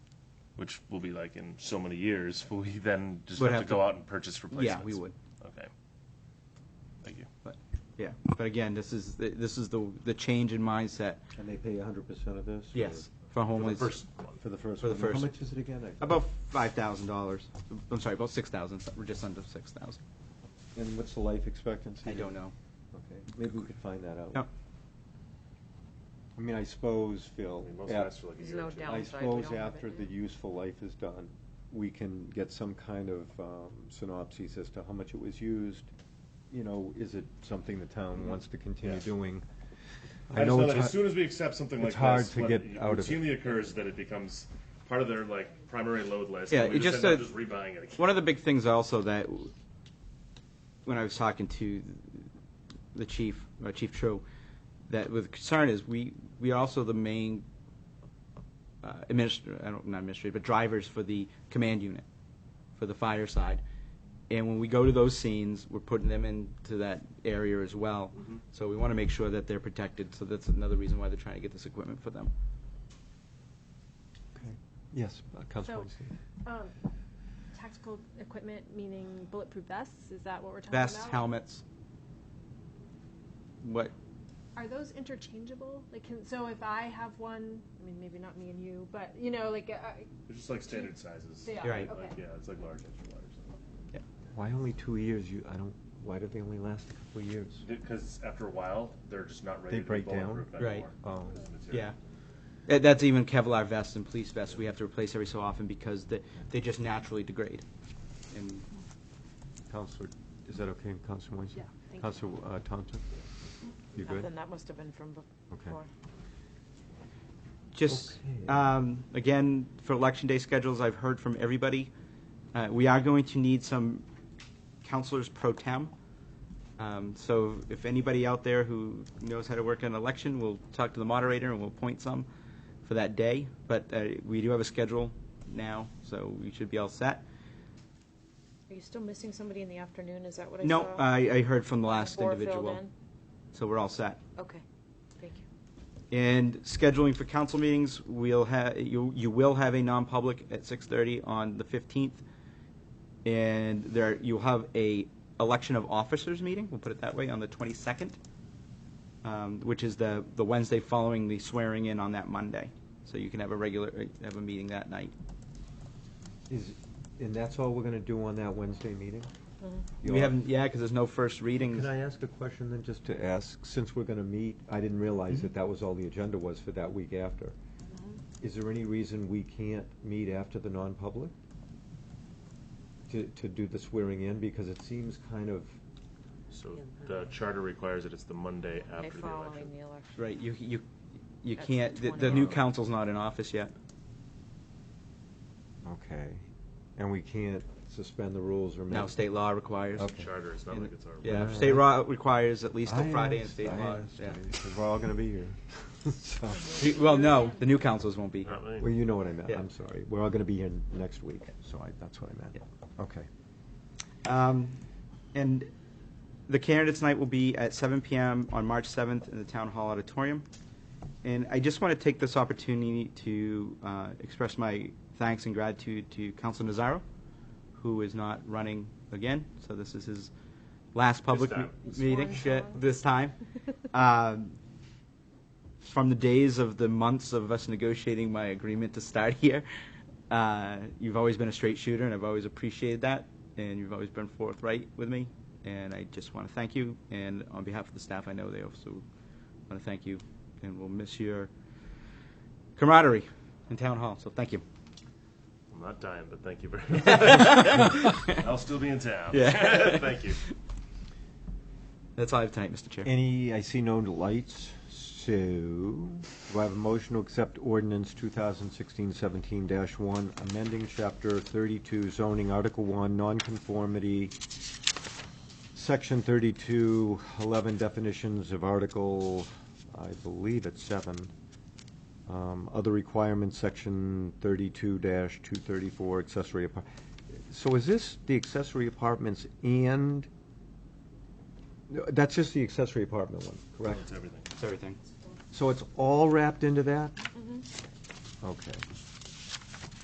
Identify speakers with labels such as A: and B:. A: which will be like in so many years, will we then just
B: Would
A: have to
B: have to-
A: go out and purchase replacements?
B: Yeah, we would.
A: Okay. Thank you.
B: But, yeah, but again, this is, this is the, the change in mindset.
C: And they pay hundred percent of this? or-
B: For
A: For the
B: homeless.
A: first one.
C: For the first
B: For the
C: one.
B: first.
C: How much is it again? I-
B: About five thousand dollars. I'm sorry, about six thousand. We're just under six thousand.
C: And what's the life expectancy?
B: I don't know.
C: Okay, maybe we could find that out.
B: No.
C: I mean, I suppose,
A: I
C: Phil,
A: mean, most
C: af-
A: lasts for like a
D: There's
A: year or
D: no
A: two.
D: doubt.
C: I
D: Downside, we
C: suppose
D: don't have it
C: after the
D: now.
C: useful life is done, we can get some kind of um, synopsis as to how much it was used. You know, is it something the town wants to continue
A: Yeah.
C: doing?
A: Mm-hmm. I, just know that
C: it's
A: as
C: hard-
A: soon as we accept something like
C: it's hard
A: this,
C: to
A: what
C: get out of it.
A: routinely occurs that it becomes part of their like primary load list.
B: Yeah,
A: and we
B: it
A: just,
B: just,
A: end up
B: uh,
A: just rebuying it. Again.
B: One of the big things also that, when I was talking to the chief, uh, Chief Cho, that with concern is we, we are also the main uh, administr, I don't, not administrator, but drivers for the command unit, for the fire side. And when we go to those scenes, we're putting them into that area as well. So we want to make sure that they're protected, so that's another reason why they're trying to get this equipment for them.
C: Okay. Yes, uh, Councilor
D: So,
C: Weinstein.
D: Um, Tactical equipment, meaning bulletproof vests, is that what we're talking about?
B: Vests, helmets. What,
D: Are those interchangeable? Like, can, so if I have one, I mean, maybe not me and you, but, you know, like, uh,
A: They're just like standard sizes.
D: They are,
B: Right.
D: okay.
A: Like, yeah, it's like large, extra large.
C: Why only two years? You, I don't, why do they only last a couple of years?
A: Because after a while, they're just not ready
C: They
A: to
C: break
A: be
C: down?
A: bulletproof
B: Right.
A: anymore.
C: Oh.
A: because of material.
B: Yeah. That- That's even Kevlar vests and police vests we have to replace every so often because they, they just naturally degrade. And
C: Counselor, is that okay, Counselor Weinstein?
D: Yeah, thank you.
C: Counselor uh, Thompson? You good?
E: Then that must have been from bef-
C: Okay.
E: before.
B: just,
C: Okay.
B: um, again, for election day schedules, I've heard from everybody. Uh, we are going to need some counselors pro tem. Um, so if anybody out there who knows how to work an election, we'll talk to the moderator and we'll appoint some for that day. But, uh, we do have a schedule now, so we should be all set.
D: Are you still missing somebody in the afternoon? Is that what I saw?
B: No, uh, I, I heard from the last
D: Before filled
B: individual.
D: in?
B: So we're all set.
D: Okay, thank you.
B: And scheduling for council meetings, we'll have, you, you will have a non-public at 6:30 on the 15th. And there, you'll have a election of officers meeting, we'll put it that way, on the 22nd, um, which is the, the Wednesday following the swearing in on that Monday. So you can have a regular, uh, have a meeting that night.
C: Is, and that's all we're gonna do on that Wednesday meeting?
E: Mm-hmm.
B: We haven't, yeah, because there's no first readings.
C: Can I ask a question then, just to ask, since we're gonna meet, I didn't realize that that was all the agenda was for that week after.
E: Mm-hmm.
C: Is there any reason we can't meet after the non-public? To, to do the swearing in, because it seems kind of,
A: So the charter requires that it's the Monday
E: Okay,
A: after the
E: following
A: election.
E: the election.
B: Right, you, you, you
E: That's
B: can't, the, the
E: 20.
B: new council's not in office yet.
C: okay, and we can't suspend the rules or.
B: No,
C: make-
B: state law requires.
C: Okay.
A: Charter, it's not
B: And-
A: like it's our.
B: Yeah,
C: Alright.
B: state law requires at least till
C: I
B: Friday and
C: asked-
B: state
C: I
B: law,
C: asked,
B: yeah.
C: because We're all gonna be here. So-
B: You- Well, no, the new councils won't be.
A: Not
C: Well,
A: really.
C: you know what I meant,
B: Yeah.
C: I'm sorry, we're all gonna be here next week, so I, that's what I meant, okay.
B: Um, And the candidates' night will be at 7 PM on March 7th in the Town Hall Auditorium. And I just want to take this opportunity to uh, express my thanks and gratitude to Council Nazaro, who is not running again, so this is his last public
A: time.
B: me- meeting
D: Swan
B: yeah,
D: song.
B: this time. Um, From the days of the months of us negotiating my agreement to start here, uh, you've always been a straight shooter, and I've always appreciated that, and you've always been forthright with me, and I just want to thank you, and on behalf of the staff, I know they also want to thank you, and we'll miss your camaraderie in Town Hall, so thank you.
A: I'm not dying, but thank you very much. I'll still be in town.
B: Yeah.
A: Thank you.
B: That's all I have tonight, Mr. Chair.
C: Any, I see no lights, so do I have a motion to accept ordinance 2016-17-1, amending Chapter 32 zoning, Article 1, nonconformity, Section 32, 11 definitions of Article, I believe it's 7, um, other requirements, Section 32-234, accessory apart. So is this the accessory apartments and no, That's just the accessory apartment one, correct?
A: That's everything.
B: That's everything.
C: So it's all wrapped into that? Okay.